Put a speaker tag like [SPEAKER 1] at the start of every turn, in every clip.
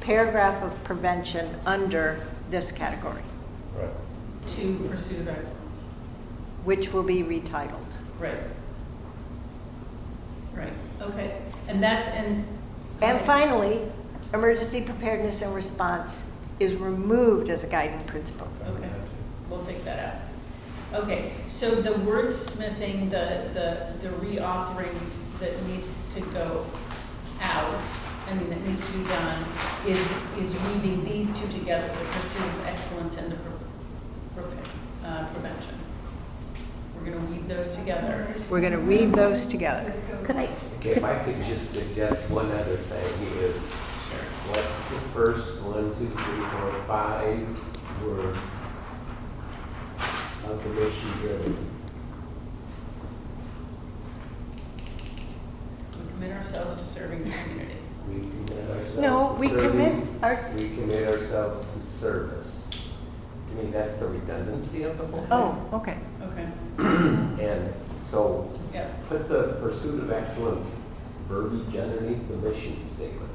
[SPEAKER 1] paragraph of prevention under this category,
[SPEAKER 2] Right.
[SPEAKER 3] to pursuit of excellence.
[SPEAKER 1] which will be retitled.
[SPEAKER 3] Right. Right, okay, and that's in.
[SPEAKER 1] And finally, emergency preparedness and response is removed as a guiding principle.
[SPEAKER 3] Okay, we'll take that out. Okay, so the wordsmithing, the, the, the reauthoring that needs to go out, I mean, that needs to be done, is, is weaving these two together, the pursuit of excellence and the pre- pre- uh, prevention. We're gonna weave those together.
[SPEAKER 1] We're going to read those together.
[SPEAKER 4] Could I,
[SPEAKER 5] If I could just suggest one other thing is,
[SPEAKER 3] Sure.
[SPEAKER 5] what's the first one, two, three, four, five words of the mission driven?
[SPEAKER 3] We commit ourselves to serving the community.
[SPEAKER 5] We commit ourselves
[SPEAKER 1] No,
[SPEAKER 5] to
[SPEAKER 1] we commit
[SPEAKER 5] serving-
[SPEAKER 1] our,
[SPEAKER 5] We commit ourselves to service. I mean, that's the redundancy of the whole thing.
[SPEAKER 1] oh, okay.
[SPEAKER 3] Okay,
[SPEAKER 5] And so
[SPEAKER 3] yeah,
[SPEAKER 5] put the pursuit of excellence verbiage underneath the mission statement.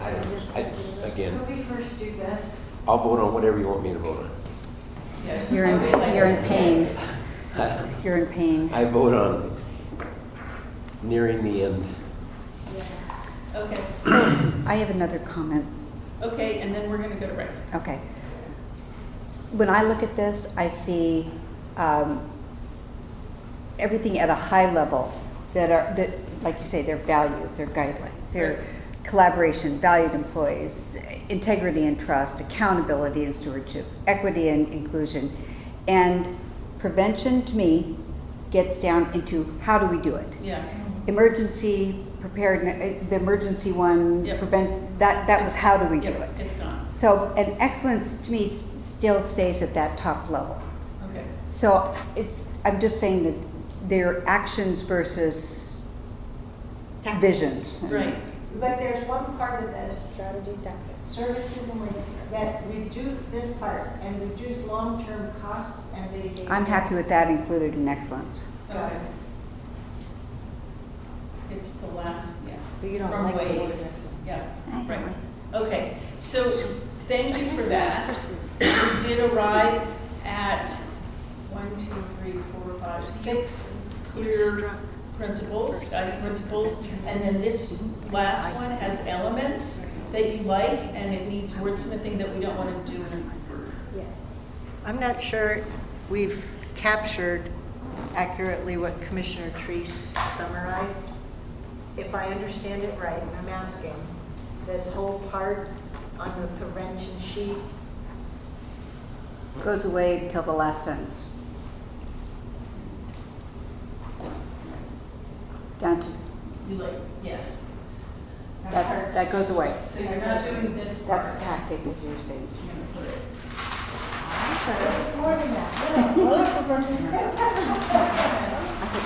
[SPEAKER 5] I, I, again,
[SPEAKER 6] When we first do this,
[SPEAKER 5] I'll vote on whatever you want me to vote on.
[SPEAKER 3] yes.
[SPEAKER 4] you're in, you're in pain.
[SPEAKER 5] Huh?
[SPEAKER 4] You're in pain.
[SPEAKER 5] I vote on nearing the end.
[SPEAKER 3] Okay,
[SPEAKER 4] So, I have another comment.
[SPEAKER 3] okay, and then we're gonna go to break.
[SPEAKER 4] Okay. S- When I look at this, I see um, everything at a high level that are, that, like you say, their values, their guidelines, their collaboration, valued employees, integrity and trust, accountability and stewardship, equity and inclusion. And prevention, to me, gets down into how do we do it?
[SPEAKER 3] Yeah,
[SPEAKER 4] Emergency preparedness, the emergency one,
[SPEAKER 3] Yep.
[SPEAKER 4] prevent, that, that was how do we do it?
[SPEAKER 3] yeah, it's gone,
[SPEAKER 4] So, and excellence to me s- still stays at that top level.
[SPEAKER 3] okay.
[SPEAKER 4] So it's, I'm just saying that their actions versus visions.
[SPEAKER 3] Right,
[SPEAKER 6] but there's one part of this. Strategy tactics. Services and ways that reduce this part and reduce long-term costs and mitigate.
[SPEAKER 4] I'm happy with that included in excellence.
[SPEAKER 3] okay. It's the last, yeah.
[SPEAKER 6] But you don't
[SPEAKER 3] From
[SPEAKER 6] like the word
[SPEAKER 3] ways.
[SPEAKER 6] excellent.
[SPEAKER 4] I
[SPEAKER 3] Yeah,
[SPEAKER 4] don't
[SPEAKER 3] right,
[SPEAKER 4] like-
[SPEAKER 3] okay, so, thank you for that. We did arrive at one, two, three, four, five, six clear principles, guiding principles. And then this last one has elements that you like, and it needs wordsmithing that we don't want to do in a group.
[SPEAKER 6] Yes.
[SPEAKER 1] I'm not sure we've captured accurately what Commissioner Treese summarized. If I understand it right, and I'm asking, this whole part on the prevention sheet,
[SPEAKER 4] Goes away until the last sentence. Down to,
[SPEAKER 3] You like, yes.
[SPEAKER 4] That's- that goes away.
[SPEAKER 3] So you're not doing this part.
[SPEAKER 4] that's a tactic, as you're saying.
[SPEAKER 3] You're gonna put it.
[SPEAKER 6] So it's more than that. Yeah, well, prevention-
[SPEAKER 4] I thought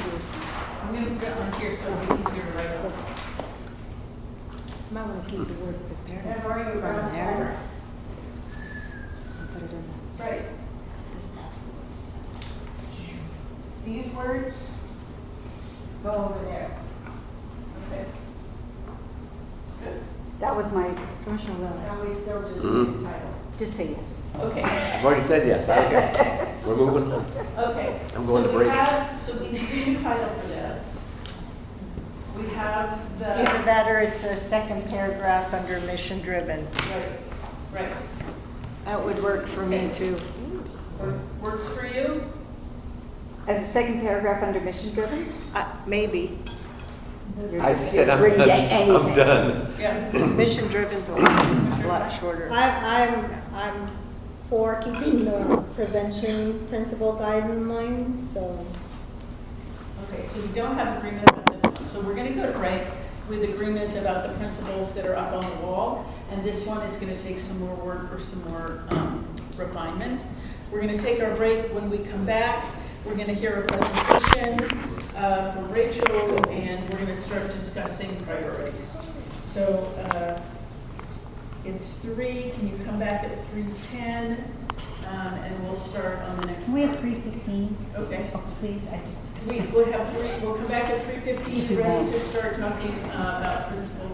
[SPEAKER 4] you were saying-
[SPEAKER 3] I'm gonna put it on here so it'll be easier to write up.
[SPEAKER 7] Might want to keep the word preparedness
[SPEAKER 6] I've
[SPEAKER 7] from
[SPEAKER 6] already run
[SPEAKER 7] there.
[SPEAKER 6] out.
[SPEAKER 7] and put it in
[SPEAKER 3] Right.
[SPEAKER 7] the stuff.
[SPEAKER 6] These words go over there.
[SPEAKER 3] Okay.
[SPEAKER 4] That was my,
[SPEAKER 7] Commissioner Wiley.
[SPEAKER 6] And we still just
[SPEAKER 5] Mhm.
[SPEAKER 1] Mm-hmm.
[SPEAKER 6] need a title.
[SPEAKER 4] just say yes.
[SPEAKER 3] Okay,
[SPEAKER 5] I've already said yes, okay. We're moving on.
[SPEAKER 3] okay.
[SPEAKER 5] I'm going to
[SPEAKER 3] So we
[SPEAKER 5] break.
[SPEAKER 3] have- So we need a new title for this. We have the,
[SPEAKER 1] either that or it's a second paragraph under mission-driven.
[SPEAKER 3] right, right.
[SPEAKER 1] That would work for me, too.
[SPEAKER 3] Wor- Works for you?
[SPEAKER 4] As a second paragraph under mission driven?
[SPEAKER 1] Uh, Maybe.
[SPEAKER 5] I said I'm
[SPEAKER 4] Ready to
[SPEAKER 5] done.
[SPEAKER 4] anything.
[SPEAKER 5] I'm done.
[SPEAKER 3] Yeah.
[SPEAKER 1] Mission-driven's a lot, a lot shorter.
[SPEAKER 8] I, I'm, I'm for keeping the prevention principle guide in mind, so.
[SPEAKER 3] Okay, so we don't have agreement about this one, so we're gonna go to break with agreement about the principles that are up on the wall, and this one is gonna take some more work or some more um, refinement. We're gonna take our break, when we come back, we're gonna hear a presentation uh, from Rachel, and we're gonna start discussing priorities. So, uh, it's three, can you come back at three-ten? And we'll start on the next.
[SPEAKER 9] Can we have
[SPEAKER 3] part.
[SPEAKER 9] three fifteen? Oh,
[SPEAKER 3] Okay.
[SPEAKER 9] Please, I just.
[SPEAKER 3] We will have three, we'll come back at three fifteen, ready to start talking uh, about principles